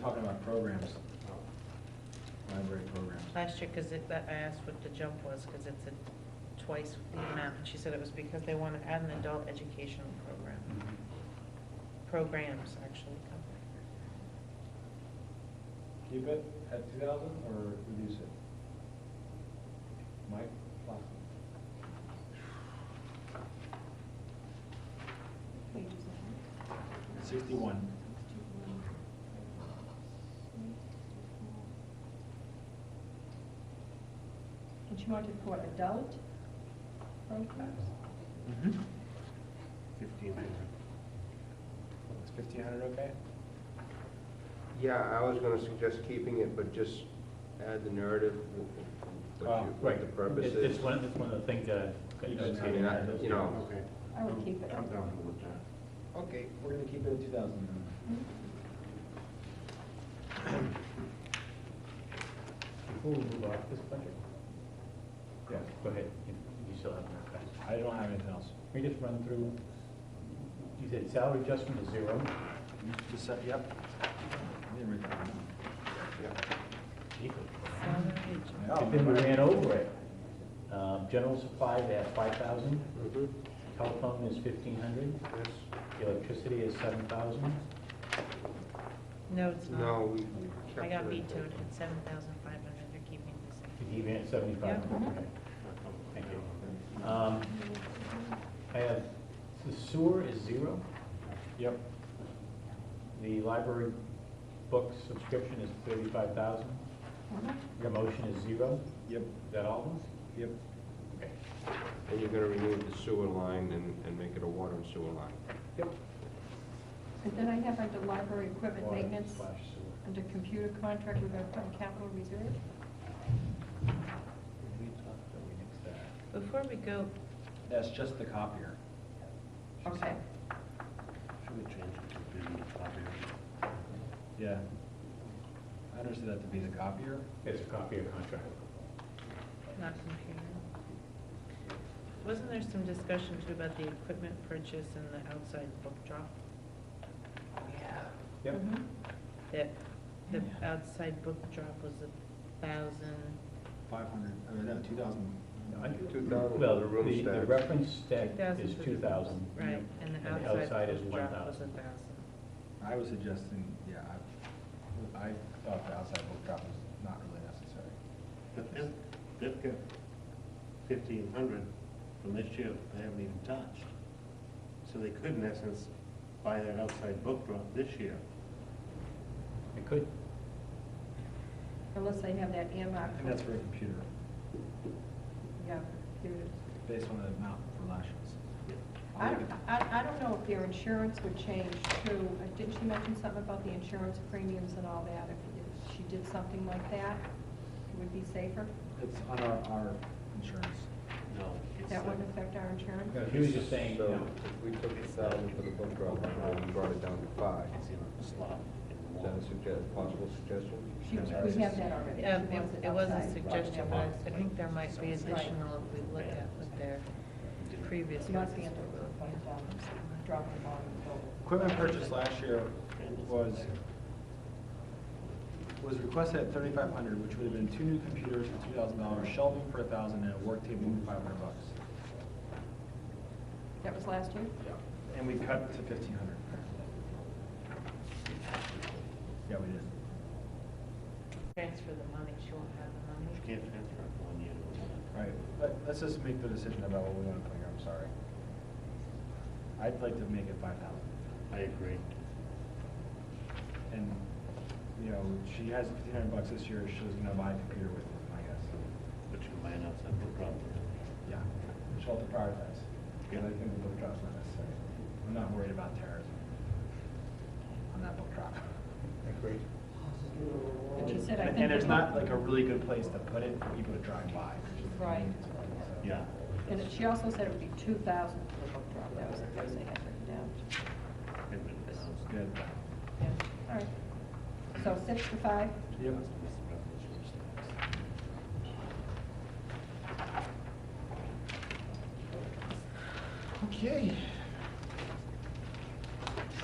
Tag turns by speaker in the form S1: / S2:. S1: talking about programs,
S2: Oh.
S3: Oh.
S1: library programs.
S4: Last year, because that, I asked what the jump was, because it's a twice the amount, and she said it was because they want to add an adult educational program, programs, actually.
S1: Keep it at two thousand or reduce it? Mike? Flossie? Sixty-one.
S5: And she wanted for adult programs?
S3: Fifteen hundred.
S1: Is fifteen hundred okay?
S6: Yeah, I was gonna suggest keeping it, but just add the narrative, wh- wh- what
S1: Oh,
S6: you, what
S2: Right.
S6: the purpose
S2: It's-
S6: is.
S2: It's one, it's one of the things that. I-
S1: You guys
S6: I mean, I, you know,
S3: Okay.
S5: I would keep it.
S3: I'm down with that.
S1: Okay, we're gonna keep it at two thousand
S2: Before we move off this budget,
S1: Yeah,
S2: go ahead, you you still have more time.
S1: I don't have anything else.
S2: Can we just run through, you said salary adjustment is zero,
S1: Just set, yep. I didn't write that down.
S2: but then we ran over it. Um, General supplies at five thousand,
S4: Mm-hmm.
S6: mhm,
S2: telephone is fifteen hundred,
S6: yes,
S2: electricity is seven thousand.
S4: No, it's not.
S6: no, we
S4: I
S6: kept
S4: got
S6: it.
S4: vetoed at seven thousand five hundred, they're keeping the same.
S2: Did you even at seventy-five?
S4: Yeah.
S2: Okay. Thank you. Um, I have, the sewer is zero,
S1: Yep.
S2: the library book subscription is thirty-five thousand, your motion is zero,
S1: Yep.
S2: is that all of them?
S1: Yep.
S2: Okay.
S6: And you're gonna remove the sewer line and, and make it a water and sewer line.
S5: And then I have under library equipment
S2: Water
S5: maintenance,
S2: slash sewer.
S5: under computer contract, we're gonna put in capital reserve.
S2: We talked that we nixed that.
S4: Before we go,
S1: That's just the copier.
S5: Okay.
S3: Should we change it to business copier?
S1: Yeah. I understood that to be the copier.
S2: It's a copy of contract.
S4: not computer. Wasn't there some discussion too about the equipment purchase and the outside book drop? Mm-hmm.
S2: Yep.
S5: Mhm.
S4: That the outside book drop was a thousand.
S1: Five hundred, I mean, no, two thousand.
S2: I-
S6: Two thousand,
S2: Well,
S6: the room
S2: the, the
S6: stack.
S2: reference stack
S4: 2,000
S2: is
S4: for the-
S2: two thousand.
S4: Right, and the outside
S2: is one
S4: drop was a
S2: thousand.
S4: thousand.
S1: I was suggesting, yeah, I, I thought the outside book drop was not really necessary.
S3: But this, this got fifteen hundred from this year they haven't even touched. So they could in essence buy that outside book drop this year.
S2: It could,
S5: Unless they have that
S1: I
S5: earmarked.
S1: think that's for a computer,
S5: Yeah, computers.
S1: based on the amount for lashes.
S5: I, I, I don't know if their insurance would change too. Uh, Didn't she mention something about the insurance premiums and all that? If- If she did something like that, it would be safer?
S1: It's on our, our insurance.
S3: No. it's
S5: That
S3: like-
S5: wouldn't affect our insurance?
S2: he was just saying, you
S6: So,
S2: know,
S6: if we took the thousand for the book drop, and we brought it down to five,
S3: It's in a slot. in the
S6: is
S3: wall.
S6: that a suggest, possible suggestion?
S5: She, we have that already.
S4: Um,
S5: She wants
S4: it, it was a
S5: outside.
S4: suggestion, but I think there might be additional if we look at what their previous
S5: Not the
S4: ones
S5: end of
S4: were.
S5: the point, um, drop the volume total.
S1: Equipment purchase last year was, was requested at thirty-five hundred, which would have been two new computers for two thousand dollars, shelving for a thousand, and a work table for five hundred bucks.
S5: That was last year?
S1: And we cut to fifteen hundred. Yeah, we did.
S4: Transfer the money, she won't have the money.
S3: You can't transfer it from one year to another.
S1: All right, let, let's just make the decision about what we want to put here, I'm sorry. I'd like to make it five thousand,
S3: I agree.
S1: and, you know, she has fifteen hundred bucks this year, she was gonna buy a computer with it, I guess.
S3: But you can buy an outside book drop.
S1: Yeah, she'll have to prioritize, because I think the book drop's not necessary. I'm not worried about terrorism on that book drop.
S2: agreed.
S5: But she said, I
S1: And and
S5: think. we
S1: there's
S5: want-
S1: not like a really good place to put it for people to drive by.
S5: Right.
S1: So-
S3: Yeah.
S5: And she also said it would be two thousand for the book drop, that was the first thing I written down.
S1: It's good.
S5: Yeah. All right. So six to five,
S1: Yep. Okay.